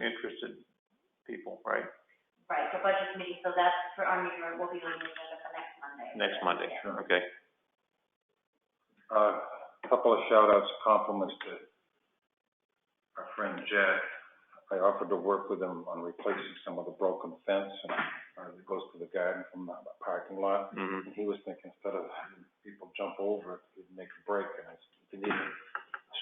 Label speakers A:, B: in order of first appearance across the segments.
A: interested people, right?
B: Right, the budget committee, so that's for our meeting, room. we'll be doing the agenda for next Monday.
A: Next Monday,
B: Yeah.
A: okay?
C: A couple of shout outs, compliments to our friend Jack. I offered to work with him on replacing some of the broken fence and, uh, that goes to the garden from the parking lot.
A: hmm
C: And he was thinking instead of having people jump over it, he'd make a break and I said, if you need a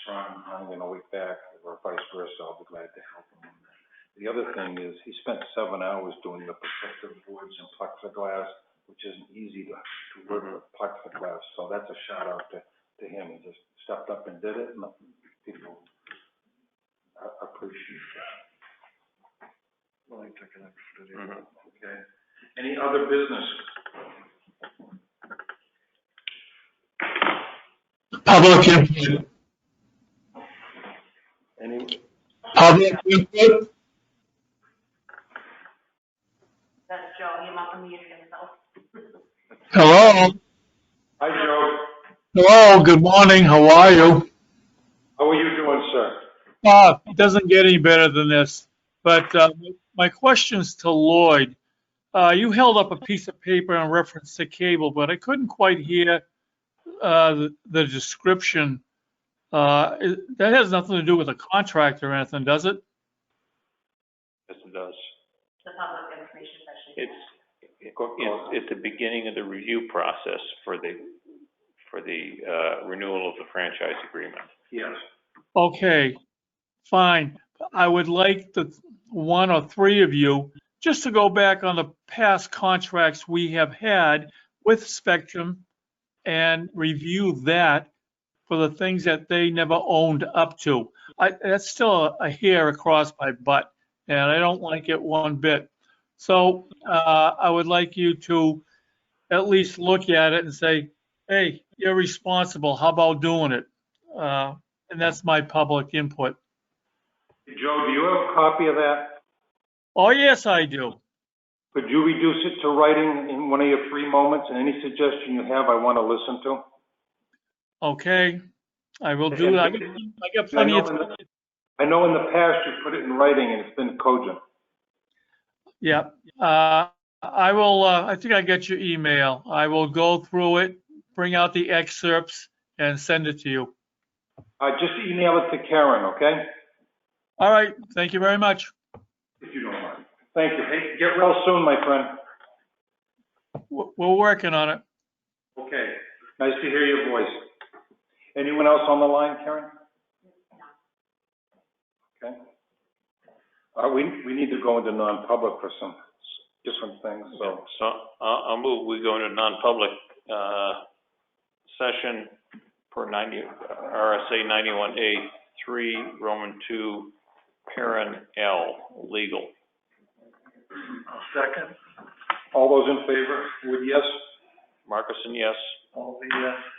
C: strong hand and a weak back or vice versa, I'll be glad to help him on that. The other thing is he spent seven hours doing the protective boards and plexiglass, which isn't easy to, to work with plexiglass. So that's a shout out to, to him. He just stepped up and did it and people a- appreciate that. Well, I took it up for
A: today. Mhm.
C: Okay. Any other business?
D: Public input,
C: Any,
D: public input,
B: That's Joe, he must have muted himself.
D: hello,
C: Hi, Joe.
D: hello, good morning, how are you?
C: How are you doing, sir?
D: Uh, it doesn't get any better than this, but, uh, my question's to Lloyd. Uh, you held up a piece of paper in reference to cable, but I couldn't quite hear, uh, the- the description. Uh, it- that has nothing to do with a contract or anything, does it?
A: Yes, it does.
B: the public information session.
A: It's, it's, it's the beginning of the review process for the, for the, uh, renewal of the franchise agreement.
C: Yes.
D: Okay, fine. I would like the one or three of you just to go back on the past contracts we have had with Spectrum and review that for the things that they never owned up to. I, that's still a hair across my butt, and I don't like it one bit. So, uh, I would like you to at least look at it and say, hey, you're responsible. How about doing it? Uh, and that's my public input.
C: Joe, do you have a copy of that?
D: Oh, yes, I do.
C: Could you reduce it to writing in one of your free moments, and any suggestion you have, I want to listen to?
D: Okay, I will do that. I got
C: I
D: plenty
C: know
D: of,
C: in the- I know in the past you put it in writing and it's been cogent.
D: yeah. Uh, I will, uh, I think I got your email. I will go through it, bring out the excerpts and send it to you.
C: Uh, just email it to Karen, okay?
D: All right, thank you very much.
C: If you don't mind. Thank you. Hey, get well soon, my friend.
D: We're, we're working on it.
C: Okay. Nice to hear your voice. Anyone else on the line, Karen? Okay. Uh, we, we need to go into non-public for some s- different things, so.
A: So, I'll, I'll move, we go into non-public, uh, session per ninety, RSA ninety-one A, three, Roman two, parent L, legal.
C: All those in favor, Wood, yes?
A: Marcuson, yes?
C: All the uh, yes.